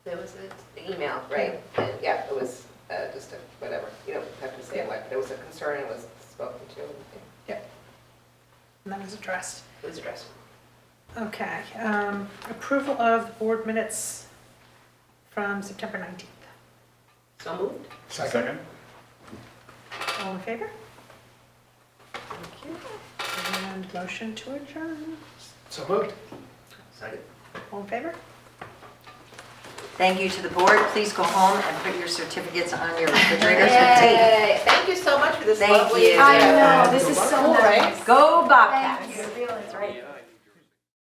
That was it? The email, right? And, yeah, it was uh, just a, whatever, you don't have to say what, but it was a concern, it was spoken to, and And that was addressed. it was addressed. Okay, um, approval of board minutes from September 19th. So moved. Second? All in favor? Thank you. And motion to adjourn. So moved. All in favor? Thank you to the board. Please go home and put your certificates on your refrigerators with tape. Yay, thank you so much for this Thank lovely. you. I I know, this is so nice. Go Bobcats.